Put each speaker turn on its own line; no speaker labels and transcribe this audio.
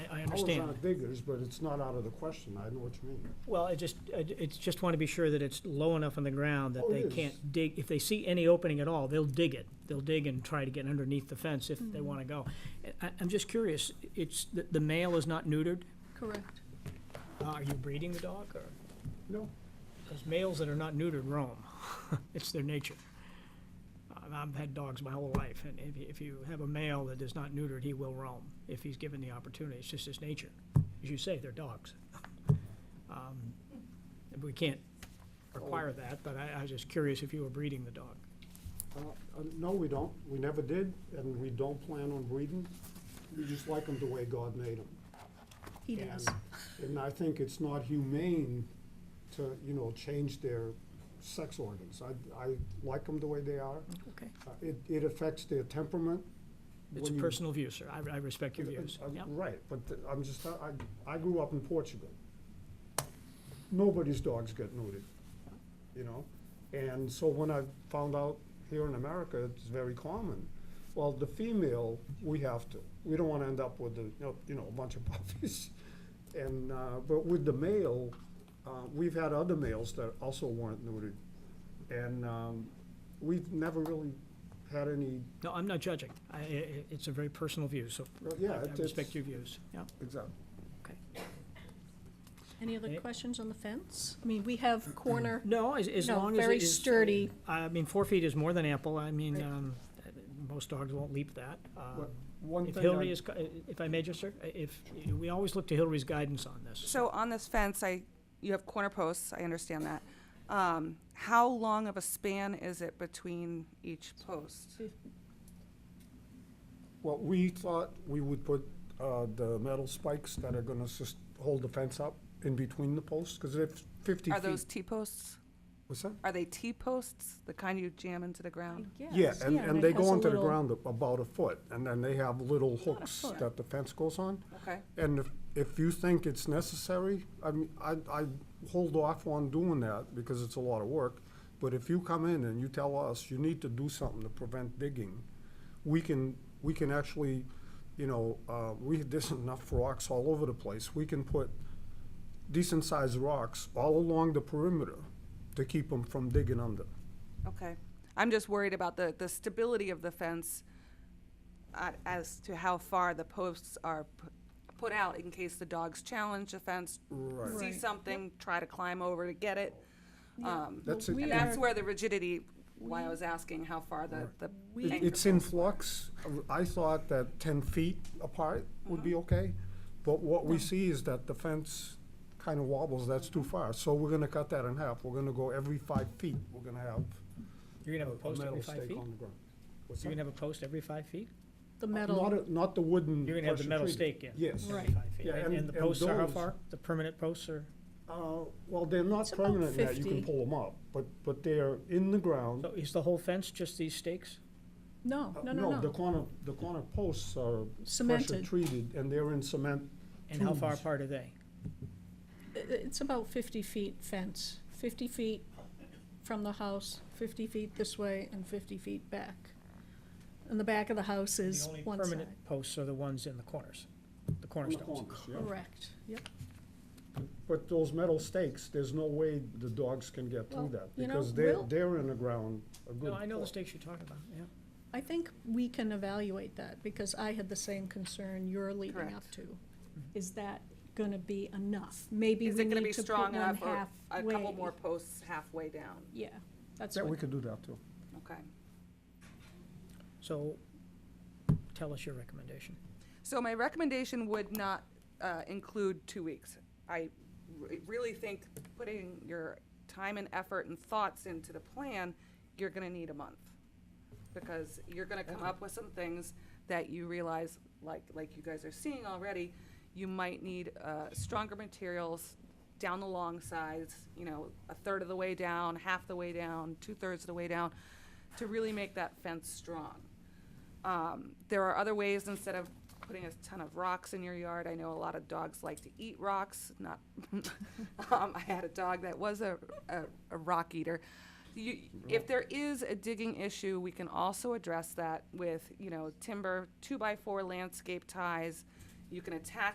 It's
understand.
not diggers, but it's not out of the question, I know what you mean.
Well, I just, I j- it's just want to be sure that it's low enough on the ground that
Oh,
they
it is.
can't dig, if they see any opening at all, they'll dig it. They'll dig and try to get underneath the fence if
Mm-hmm.
they want to go. I, I'm just curious, it's, the, the male is not neutered?
Correct.
Uh, Are you breeding the dog, or,
No,
because males that are not neutered roam, it's their nature. I've- I've had dogs my whole life, and if, you- if you have a male that is not neutered, he will roam, if he's given the opportunity, it's just his nature. As you say, they're dogs. Um, We can't require that, but I, I was just curious if you were breeding the dog.
uh, uh, no, we don't, we never did, and we don't plan on breeding. We just like them the way God made them.
He does.
And I think it's not humane to, you know, change their sex organs. I, I like them the way they are.
Okay.
Uh, It, it affects their temperament.
It's a
when you-
personal view, sir, I, I respect your views,
Uh, uh,
yeah.
Right, but th- I'm just, I, I grew up in Portugal. Nobody's dogs get neutered, you know? And so when I found out here in America, it's very common. Well, the female, we have to. We don't wanna end up with the, you know, you know, a bunch of puppies. And, uh, but with the male, uh, we've had other males that also weren't neutered. And, um, we've never really had any,
No, I'm not judging, I, i- i- it's a very personal view, so
Well,
I
yeah,
I
it's-
respect your views, yeah.
exactly.
Any other
Eh?
questions on the fence? I mean, we have corner,
No, as, as
No,
long as it
very
is- uh,
sturdy.
I mean, four feet is more than ample, I mean,
Right.
um, most dogs won't leap that. Um,
What- One
If
thing I-
Hillary is, co- if I may just, sir, if, we always look to Hillary's guidance on this.
So on this fence, I, you have corner posts, I understand that. Um, how long of a span is it between each post?
Well, we thought we would put uh, the metal spikes that are gonna just hold the fence up in between the posts, because they're fifty
Are those
feet.
T-posts?
What's that?
Are they T-posts, the kind you jam into the ground?
Yeah, and, and they
it has
go
a
into the
little-
ground a- about a foot, and then they have little hooks
foot.
that the fence goes on.
Okay,
And if, if you think it's necessary, I mean, I, I hold off on doing that because it's a lot of work. But if you come in and you tell us you need to do something to prevent digging, we can, we can actually, you know, uh, we, there's enough rocks all over the place. We can put decent-sized rocks all along the perimeter to keep them from digging under.
okay. I'm just worried about the, the stability of the fence uh, as to how far the posts are pu- put out in case the dogs challenge the fence,
Right.
see
Right.
something, try to climb over to get it. Um,
That's it.
Well, we
And
are-
that's where the rigidity, why I was asking how far the, the
It-
anchor
It's in
posts were.
flux. I thought that ten feet apart would
Uh-huh.
be okay, but what we see is that the fence kind of wobbles, that's too far. So we're gonna cut that in half. We're gonna go every five feet, we're gonna have
You're gonna have a
a
post every
metal
five
stake
feet?
on Mm. the ground. What's
You're
that?
gonna have a post every five feet?
The
Not,
metal,
a- not the wooden.
You're gonna have the
pressure
metal
treated.
stake in?
Yes.
Right.
Every five feet.
Yeah,
And,
and-
and the
and
posts are how
those-
far? The permanent posts are,
Uh, well, they're not
It's about
permanent yet, you
50.
can pull them up, but, but they're in the ground.
so is the whole fence just these stakes?
no,
Uh,
no, no,
The
no.
corner, the corner posts are pressure
Cemented.
treated and they're in cement.
And how far
Tubes.
apart are they?
I- It's about fifty feet fence, fifty feet from the house, fifty feet this way and fifty feet back. And the back of the house
The
is
only
one side.
permanent posts are the ones in the corners, the
on the
cornerstones.
corners, yeah.
Correct, yep.
But those metal stakes, there's no way the dogs can get
Well,
through that,
you know,
because they're,
we'll-
they're in the ground a good.
No, I know the
foot.
stakes you're talking about, yeah.
I think we can evaluate that, because I had the same concern you're leading up
Correct.
to. Is that gonna be enough? Maybe
Is
we
it gonna
need
be
to put one
strong enough
halfway.
or a couple more posts halfway down?
Yeah, that's
Yeah, we
what,
could do that too.
Okay.
So, tell us your recommendation.
So my recommendation would not uh, include two weeks. I re- really think putting your time and effort and thoughts into the plan, you're gonna need a month. Because you're gonna come up with some things that you realize, like, like you guys are seeing already, you might need uh, stronger materials down the long sides, you know, a third of the way down, half the way down, two-thirds of the way down, to really make that fence strong. Um, there are other ways instead of putting a ton of rocks in your yard. I know a lot of dogs like to eat rocks. Not, um, I had a dog that was a, a, a rock eater. You, if there is a digging issue, we can also address that with you know timber two by four landscape ties. You can attach